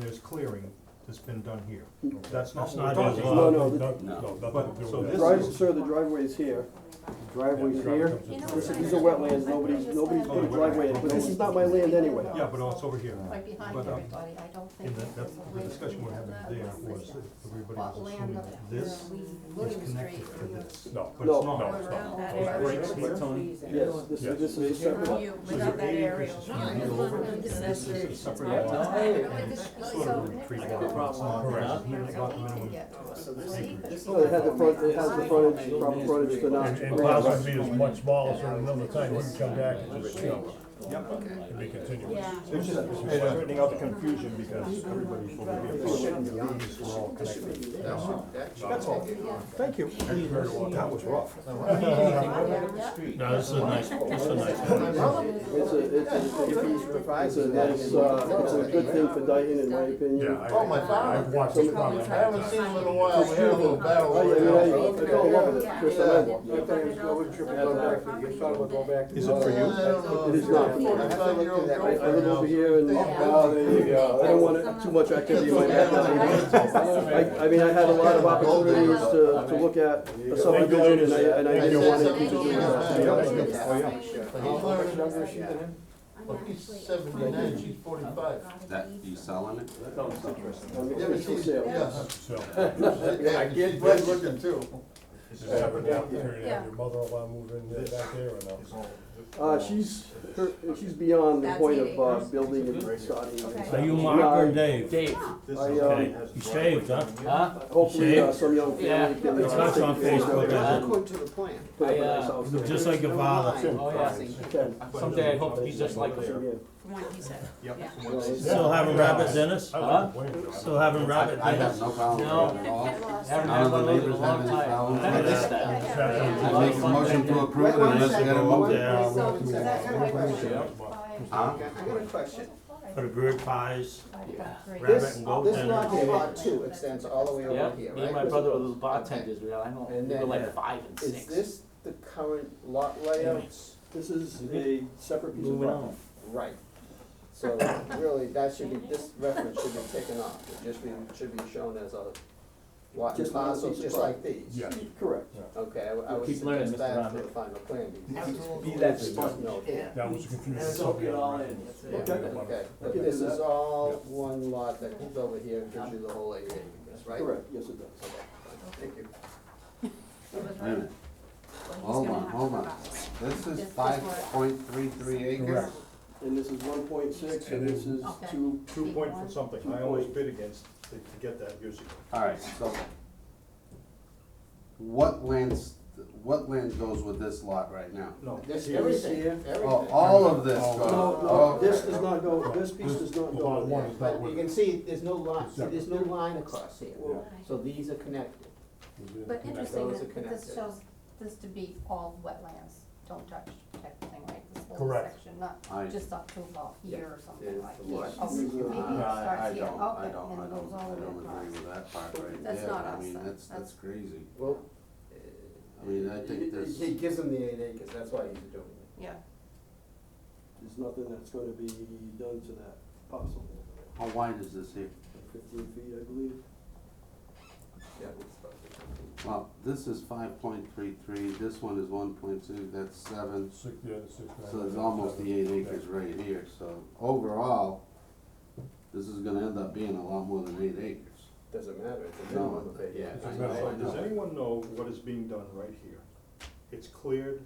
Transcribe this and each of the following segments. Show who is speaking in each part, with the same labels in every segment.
Speaker 1: there's clearing that's been done here.
Speaker 2: Okay.
Speaker 1: That's not
Speaker 2: That's
Speaker 1: what we're
Speaker 2: not his
Speaker 1: talking
Speaker 2: lot.
Speaker 1: about.
Speaker 3: No, no,
Speaker 2: Nothing-
Speaker 4: no.
Speaker 2: no, nothing to
Speaker 1: But-
Speaker 2: do with
Speaker 1: so
Speaker 2: that.
Speaker 1: this
Speaker 3: Drive,
Speaker 1: is-
Speaker 3: sir, the driveway's here, driveway's
Speaker 2: You
Speaker 3: here,
Speaker 2: know
Speaker 3: this
Speaker 2: what?
Speaker 3: is, these are wetlands, nobody's, nobody's put a driveway in, but this is not my land anyway.
Speaker 1: Yeah, but also over here.
Speaker 5: Right behind
Speaker 1: But, um,
Speaker 5: everybody, I don't
Speaker 1: In the,
Speaker 5: think. there's a
Speaker 1: that- the
Speaker 5: way
Speaker 1: discussion
Speaker 5: we
Speaker 1: we're
Speaker 5: have
Speaker 1: having
Speaker 5: that
Speaker 1: there was
Speaker 5: list that-
Speaker 1: that everybody was
Speaker 5: What land
Speaker 1: assuming
Speaker 5: up there,
Speaker 1: this
Speaker 5: we,
Speaker 1: is
Speaker 5: William Street.
Speaker 1: connected to this,
Speaker 2: No.
Speaker 1: but it's
Speaker 3: No.
Speaker 1: not.
Speaker 2: No, it's not.
Speaker 6: That
Speaker 2: It's
Speaker 6: area.
Speaker 2: right here.
Speaker 3: Yes, this
Speaker 2: Yes.
Speaker 3: is, this is a separate lot.
Speaker 6: You,
Speaker 1: So
Speaker 6: without
Speaker 1: your
Speaker 6: that area.
Speaker 1: area is
Speaker 6: No,
Speaker 1: here
Speaker 6: it's not-
Speaker 1: over, and
Speaker 6: it's
Speaker 1: this
Speaker 6: not-
Speaker 1: is a separate
Speaker 6: it's
Speaker 1: lot.
Speaker 6: not-
Speaker 5: But with this-
Speaker 1: Sort of a retreat lot. It's not
Speaker 5: so-
Speaker 1: correct.
Speaker 5: so
Speaker 1: It's not
Speaker 5: he
Speaker 1: minimum.
Speaker 5: can get to it.
Speaker 1: acreage.
Speaker 3: No, it has the front, it has the frontage, proper frontage to not.
Speaker 2: And, and possibly is much smaller, so another time we can come back and just see,
Speaker 1: Yep.
Speaker 2: and be continuous.
Speaker 6: Yeah.
Speaker 1: It's just straightening out the confusion because everybody's going to be approved. These were all connected. That's all. Thank you. That was rough.
Speaker 2: No, this is a nice, this is a nice one.
Speaker 3: It's a, it's a, it's a nice, uh, it's a good thing for Dayton, in my
Speaker 2: Yeah,
Speaker 3: opinion.
Speaker 2: I,
Speaker 7: Oh, my God.
Speaker 2: I've watched it probably.
Speaker 7: I haven't seen him in a while, we had a little battle.
Speaker 3: Oh, yeah, I mean, I, I fell in love with it, Chris, I love it.
Speaker 1: Is it for you?
Speaker 3: It is not. I, I live over here and, oh, there you go, I don't want it- too much activity in my backyard. I, I mean, I had a lot of opportunities to, to look at a subdivision and I, and I didn't want to do it.
Speaker 7: He's seventy-nine, she's forty-five.
Speaker 4: That, you selling it?
Speaker 3: I'm
Speaker 7: Yeah, but
Speaker 3: it's for
Speaker 7: she's,
Speaker 3: sale.
Speaker 7: yeah.
Speaker 2: So,
Speaker 7: Yeah, she's good looking too.
Speaker 2: is it ever an opportunity to have your mother-in-law move in there back there um, or no?
Speaker 3: Uh, she's, her, she's beyond the point of, uh, building and starting.
Speaker 8: Are you Mark or Dave?
Speaker 9: Dave,
Speaker 3: I,
Speaker 8: Okay,
Speaker 3: um,
Speaker 8: you saved, huh?
Speaker 9: huh?
Speaker 3: hopefully, uh, some young family can. uh,
Speaker 8: It's not on Facebook, is it?
Speaker 10: According to the plan.
Speaker 3: Put up a nice house.
Speaker 8: Look Just like your father.
Speaker 10: Line
Speaker 9: Oh, yeah.
Speaker 3: Can.
Speaker 9: Someday I hope to be just like him.
Speaker 3: Yeah.
Speaker 6: From what he said. Yeah.
Speaker 8: Still having rabbits in us?
Speaker 2: I like the way it's-
Speaker 8: Still having rabbit
Speaker 4: I have
Speaker 8: dinners?
Speaker 4: no problem
Speaker 9: No.
Speaker 4: with it at all.
Speaker 9: Haven't
Speaker 4: None
Speaker 9: had
Speaker 4: of
Speaker 9: one
Speaker 4: the
Speaker 9: of those in a
Speaker 4: neighbors have
Speaker 9: long
Speaker 4: any
Speaker 9: time.
Speaker 4: problems
Speaker 9: I
Speaker 4: with
Speaker 9: missed
Speaker 4: that.
Speaker 9: that.
Speaker 4: I make a motion to approve it
Speaker 10: Wait, one
Speaker 4: unless you
Speaker 10: second.
Speaker 4: gotta move it.
Speaker 8: Yeah,
Speaker 5: So, is that how it works?
Speaker 4: Huh?
Speaker 10: Okay, I got a question.
Speaker 8: For the bird pies,
Speaker 10: This,
Speaker 8: rabbit
Speaker 10: this
Speaker 8: and goat
Speaker 10: lot
Speaker 8: dinners.
Speaker 10: here, lot two extends all the way over here, right?
Speaker 9: Yep, me and my brother were little bartenders, we were, I know,
Speaker 10: And
Speaker 9: we were
Speaker 10: then-
Speaker 9: like five and
Speaker 10: Is
Speaker 9: six.
Speaker 10: this the current lot layout?
Speaker 3: This is a separate piece of
Speaker 9: Moving
Speaker 3: property.
Speaker 9: on.
Speaker 10: Right. So really, that should be, this reference should be taken off, it just be, should be shown as a lot and
Speaker 3: Just one
Speaker 10: parcel,
Speaker 3: piece of
Speaker 10: just like these.
Speaker 2: Yeah.
Speaker 3: Correct.
Speaker 10: Okay, I would- I would
Speaker 9: Keep learning,
Speaker 10: suggest that
Speaker 9: Mr.
Speaker 10: for
Speaker 9: Romney.
Speaker 10: the final plan, because
Speaker 7: Absolutely.
Speaker 10: that's just no.
Speaker 2: That was a confusing
Speaker 9: Soak it all
Speaker 2: subject.
Speaker 9: in.
Speaker 10: Yeah, okay, but this is all one lot that comes over here and gives you the whole area, I guess, right?
Speaker 3: Correct, yes it does.
Speaker 10: Okay, thank you.
Speaker 4: Wait a minute, hold on, hold on. This is five point three three acres?
Speaker 2: Correct.
Speaker 3: And this is one point six and this is
Speaker 5: Okay.
Speaker 3: two,
Speaker 1: Two point for something. I always bid against to to get that years ago.
Speaker 4: Alright, so what lands, what land goes with this lot right now?
Speaker 1: No.
Speaker 10: This,
Speaker 1: here.
Speaker 10: everything,
Speaker 3: here.
Speaker 4: Oh,
Speaker 10: everything.
Speaker 4: all of this goes?
Speaker 3: No, no, this
Speaker 4: Oh, Okay.
Speaker 3: does not go, this piece does not
Speaker 2: Lot
Speaker 3: go.
Speaker 2: one is not
Speaker 10: But you
Speaker 2: with
Speaker 10: can
Speaker 2: it.
Speaker 10: see, there's no line, see, there's no line across here,
Speaker 3: Well,
Speaker 10: so these are connected.
Speaker 5: But interesting,
Speaker 10: Those are
Speaker 5: that this
Speaker 10: connected.
Speaker 5: shows this to be all wetlands, don't touch type of thing, right? This whole
Speaker 2: Correct.
Speaker 5: section, not
Speaker 4: I-
Speaker 5: just up to about here or something
Speaker 10: There's
Speaker 5: like
Speaker 10: the
Speaker 5: here.
Speaker 10: lot.
Speaker 5: Oh, maybe
Speaker 4: Uh,
Speaker 5: it
Speaker 4: I, I
Speaker 5: starts here,
Speaker 4: don't, I
Speaker 5: okay,
Speaker 4: don't,
Speaker 5: and
Speaker 4: I
Speaker 5: it goes
Speaker 4: don't,
Speaker 5: all
Speaker 4: I
Speaker 5: the
Speaker 4: don't
Speaker 5: way
Speaker 4: agree
Speaker 5: across.
Speaker 4: with that part right
Speaker 5: That's
Speaker 4: there,
Speaker 5: not
Speaker 4: I
Speaker 5: us,
Speaker 4: mean,
Speaker 5: that-
Speaker 4: that's,
Speaker 5: that's-
Speaker 4: that's crazy.
Speaker 10: Well.
Speaker 4: I mean, I think
Speaker 10: it-
Speaker 4: there's-
Speaker 10: It gives them the eight acres, that's why he's doing it.
Speaker 5: Yeah,
Speaker 3: There's nothing that's gonna be done to that parcel.
Speaker 4: How wide is this here?
Speaker 3: Fifteen feet, I believe.
Speaker 10: Yeah, it's about the same.
Speaker 4: Well, this is five point three three, this one is one point two, that's seven,
Speaker 2: Six, yeah, the six. nine,
Speaker 4: so it's
Speaker 2: nine,
Speaker 4: almost
Speaker 2: seven.
Speaker 4: the eight
Speaker 2: Yeah.
Speaker 4: acres right here, so overall, this is gonna end up being a lot more than eight acres.
Speaker 10: Doesn't matter, it's a
Speaker 4: No,
Speaker 10: minimum of eight
Speaker 4: Oh, yeah.
Speaker 10: acres.
Speaker 2: It's a minimum.
Speaker 4: I- I
Speaker 1: Does
Speaker 4: know.
Speaker 1: anyone know what is being done right here? It's cleared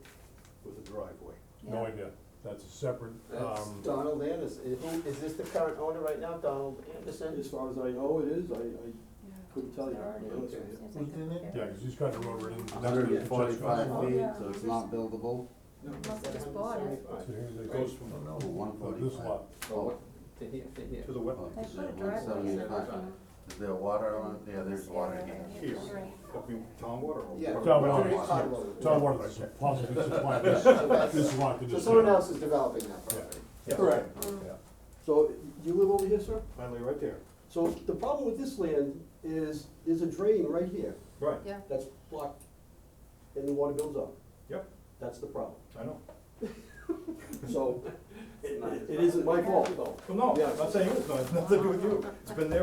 Speaker 1: with a driveway.
Speaker 2: No idea, that's a separate,
Speaker 10: That's
Speaker 2: um,
Speaker 10: Donald Anderson, is, who- is this the current owner right now, Donald
Speaker 3: As
Speaker 10: Anderson?
Speaker 3: far as I know, it is, I, I couldn't tell you. to be honest with you.
Speaker 5: Seems like
Speaker 7: Within
Speaker 5: they're-
Speaker 7: it?
Speaker 5: they're-
Speaker 2: yeah, cause he's got the road right in. that's where
Speaker 4: hundred
Speaker 2: the
Speaker 4: and
Speaker 2: judge
Speaker 4: forty-five
Speaker 2: goes.
Speaker 4: feet,
Speaker 5: yeah.
Speaker 4: so it's not buildable,
Speaker 10: No,
Speaker 5: Must
Speaker 10: that's
Speaker 5: have just bought it.
Speaker 10: 175.
Speaker 2: So here it goes from
Speaker 4: Oh, one
Speaker 2: uh, this
Speaker 4: forty-five.
Speaker 2: lot,
Speaker 10: Well, what- To here, to here.
Speaker 1: To the wet,
Speaker 4: Oh,
Speaker 5: They
Speaker 4: is
Speaker 5: put a
Speaker 4: it
Speaker 5: driveway in.
Speaker 4: 175? Is there water on it? Yeah, there's water here.
Speaker 1: here, I mean, town water or?
Speaker 10: Yeah.
Speaker 2: Tom
Speaker 10: Well,
Speaker 2: Warner,
Speaker 10: it's Tom Warner.
Speaker 2: Tom Warner, possibly supply this, this lot to
Speaker 10: So
Speaker 2: this.
Speaker 10: someone else is developing that property.
Speaker 3: Correct.
Speaker 2: Yeah.
Speaker 3: So, you live over here, sir?
Speaker 1: Finally, right there,
Speaker 3: So the problem with this land is, there's a drain right here
Speaker 1: right,
Speaker 5: Yeah,
Speaker 3: that's blocked and the water builds up.
Speaker 1: Yep.
Speaker 3: That's the problem.
Speaker 1: I know.
Speaker 3: So, it it isn't my fault though.
Speaker 1: Well, no,
Speaker 3: Yeah.
Speaker 1: I'm not saying it's not, it's nothing to do with you, it's been there